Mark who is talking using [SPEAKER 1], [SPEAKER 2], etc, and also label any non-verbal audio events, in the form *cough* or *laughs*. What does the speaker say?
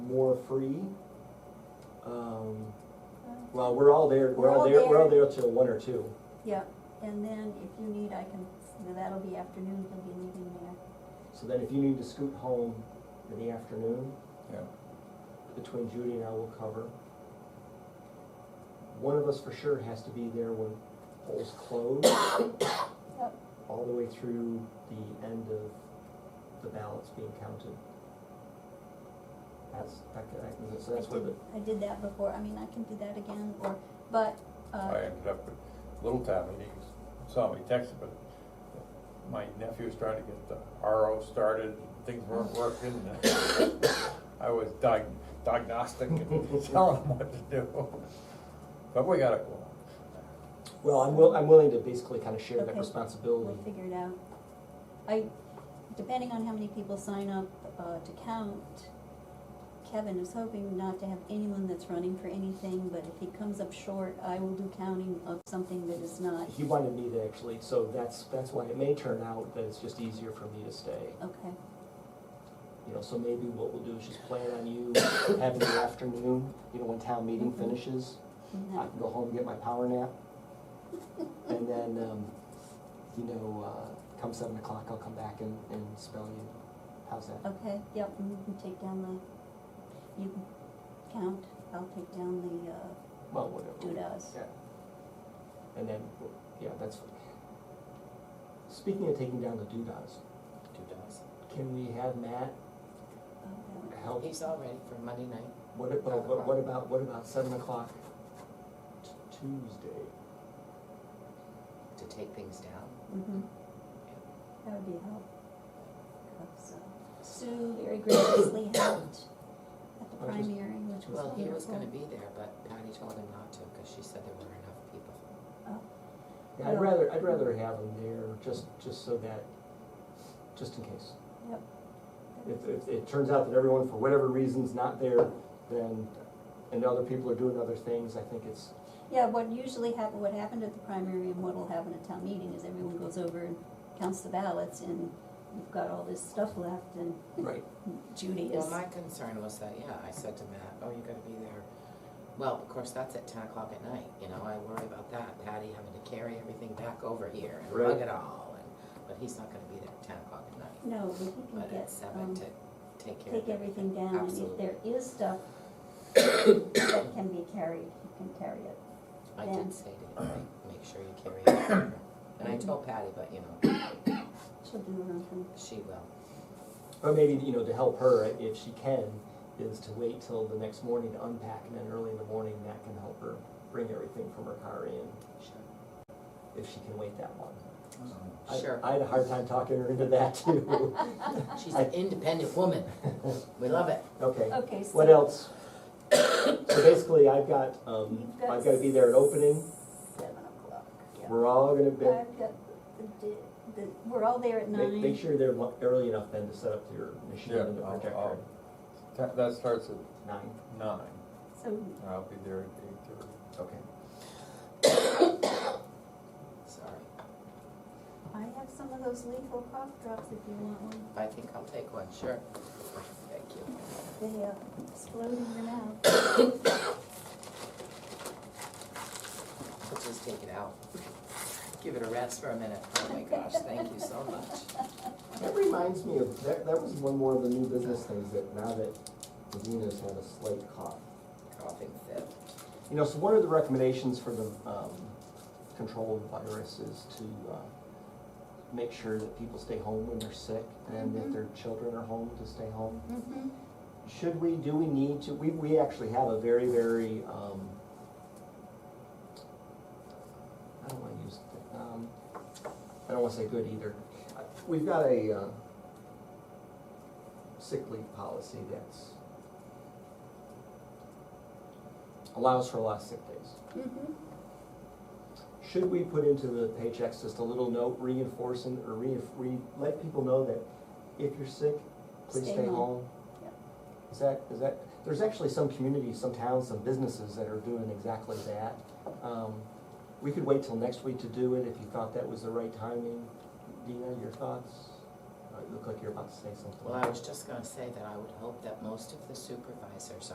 [SPEAKER 1] more free. Um, well, we're all there, we're all
[SPEAKER 2] We're all
[SPEAKER 1] there, we're all there till one or two.
[SPEAKER 2] Yeah, and then if you need, I can, that'll be afternoon, he'll be leaving there.
[SPEAKER 1] So then if you need to scoot home in the afternoon,
[SPEAKER 3] Yeah,
[SPEAKER 1] between Judy and I will cover. One of us for sure has to be there when polls close,
[SPEAKER 2] Yep.
[SPEAKER 1] all the way through the end of the ballots being counted. That's, that, that- so that's
[SPEAKER 2] I
[SPEAKER 1] where the,
[SPEAKER 2] did- I did that before, I mean, I can do that again, or, but, uh,
[SPEAKER 3] I ended up with little Tommy, he saw me texting, but my nephew was trying to get the RO started, and things weren't working. and *coughs* I was diag- diagnostic and *laughs* telling him what to do, but we got it going.
[SPEAKER 1] well, I'm will, I'm willing to basically kind of share that
[SPEAKER 2] Okay.
[SPEAKER 1] responsibility.
[SPEAKER 2] we'll figure it out. I, depending on how many people sign up, uh, to count, Kevin is hoping not to have anyone that's running for anything, but if he comes up short, I will do counting of something that is not,
[SPEAKER 1] He wanted me to actually, so that's, that's why it may turn out that it's just easier for me to stay.
[SPEAKER 2] okay,
[SPEAKER 1] You know, so maybe what we'll do is just plan on you *coughs* having the afternoon, you know, when town meeting
[SPEAKER 2] Mhm.
[SPEAKER 1] finishes.
[SPEAKER 2] and
[SPEAKER 1] I
[SPEAKER 2] that-
[SPEAKER 1] can go home and get my power nap. And then, um, you know, uh, come seven o'clock, I'll come back and, and spell you. How's that?
[SPEAKER 2] okay, yep, and you can take down the, you can count, I'll take down the, uh,
[SPEAKER 1] Well, whatever.
[SPEAKER 2] doodahs.
[SPEAKER 1] Yeah. And then, yeah, that's. Speaking of taking down the doodahs,
[SPEAKER 4] Two dogs.
[SPEAKER 1] can we have Matt
[SPEAKER 2] Oh, yeah.
[SPEAKER 1] help?
[SPEAKER 4] He's all ready for Monday night.
[SPEAKER 1] What about, what- what about, what about seven o'clock t- Tuesday?
[SPEAKER 4] To take things down.
[SPEAKER 2] Mhm. That would be helpful. So, Sue very graciously helped at the
[SPEAKER 1] I just-
[SPEAKER 2] primary, which was wonderful.
[SPEAKER 4] Well, he was gonna be there, but Patty told him not to, cause she said there were enough people.
[SPEAKER 1] Yeah, I'd
[SPEAKER 2] Yeah.
[SPEAKER 1] rather, I'd rather have them there, just, just so that, just in case.
[SPEAKER 2] Yep.
[SPEAKER 1] If, if it turns out that everyone, for whatever reason's not there, then, and other people are doing other things, I think it's,
[SPEAKER 2] Yeah, what usually happen, what happened at the primary and what'll happen at town meeting is everyone goes over and counts the ballots and you've got all this stuff left and
[SPEAKER 1] right,
[SPEAKER 2] Judy is,
[SPEAKER 4] Well, my concern was that, yeah, I said to Matt, oh, you gotta be there. Well, of course, that's at ten o'clock at night, you know, I worry about that, Patty having to carry everything back over here and
[SPEAKER 1] Right.
[SPEAKER 4] lug it all, and, but he's not gonna be there at ten o'clock at night.
[SPEAKER 2] no, but he can
[SPEAKER 4] But
[SPEAKER 2] get,
[SPEAKER 4] at seven
[SPEAKER 2] um,
[SPEAKER 4] to take care of
[SPEAKER 2] take everything down and if
[SPEAKER 4] Absolutely.
[SPEAKER 2] there is *coughs* stuff that can be carried, he can carry it.
[SPEAKER 4] I
[SPEAKER 2] Yeah.
[SPEAKER 4] did say to him, like, make sure you carry it over. And I told Patty, but you know,
[SPEAKER 2] She'll do her own thing.
[SPEAKER 4] she will.
[SPEAKER 1] or maybe, you know, to help her, if she can, is to wait till the next morning to unpack, and then early in the morning, that can help her bring everything from her car in,
[SPEAKER 4] Sure.
[SPEAKER 1] if she can wait that long. I-
[SPEAKER 4] Sure.
[SPEAKER 1] I had a hard time talking her into that too. *laughs*
[SPEAKER 4] She's
[SPEAKER 1] I-
[SPEAKER 4] an independent woman. We love it.
[SPEAKER 1] Okay.
[SPEAKER 2] Okay, so.
[SPEAKER 1] What else? *coughs* So basically, I've got, um,
[SPEAKER 2] You've
[SPEAKER 1] I've gotta be there at opening,
[SPEAKER 2] Seven o'clock, yeah.
[SPEAKER 1] we're all gonna be,
[SPEAKER 2] I've got the, di- the, we're all there at
[SPEAKER 1] make, make
[SPEAKER 2] nine,
[SPEAKER 1] sure they're lo- early enough then to set up your machine
[SPEAKER 3] Yeah,
[SPEAKER 1] and the
[SPEAKER 3] I'll-
[SPEAKER 1] projector.
[SPEAKER 3] I'll- That, that starts at
[SPEAKER 1] Nine,
[SPEAKER 3] nine,
[SPEAKER 2] so,
[SPEAKER 3] and I'll be there at eight thirty.
[SPEAKER 1] okay.
[SPEAKER 4] Sorry.
[SPEAKER 2] I have some of those lethal cough drops if you want one.
[SPEAKER 4] I think I'll take one, sure. Thank you.
[SPEAKER 2] They uh, explode in your mouth.
[SPEAKER 4] Let's just take it out. Give it a rest for a minute. Oh my gosh, thank you so much.
[SPEAKER 1] That reminds me of, that, that was one more of the new business things that now that Medina's had a slight cough.
[SPEAKER 4] Coughing fit.
[SPEAKER 1] You know, so one of the recommendations for the, um, control of virus is to, uh, make sure that people stay home when they're sick and that
[SPEAKER 2] Mhm.
[SPEAKER 1] their children are home to stay home.
[SPEAKER 2] Mm-hmm.
[SPEAKER 1] Should we, do we need to, we, we actually have a very, very, um, I don't wanna use, um, I don't wanna say good either. We've got a, uh, sick leave policy that's allows for a lot of sick days.
[SPEAKER 2] Mm-hmm.
[SPEAKER 1] Should we put into the paychecks just a little note reinforcing or re, re, let people know that if you're sick, please
[SPEAKER 2] Stay
[SPEAKER 1] stay
[SPEAKER 2] home.
[SPEAKER 1] home?
[SPEAKER 2] Yep.
[SPEAKER 1] Is that, is that, there's actually some communities, some towns, some businesses that are doing exactly that. Um, We could wait till next week to do it if you thought that was the right timing. Dina, your thoughts? Uh, You look like you're about to say something.
[SPEAKER 4] Well, I was just gonna say that I would hope that most of the supervisors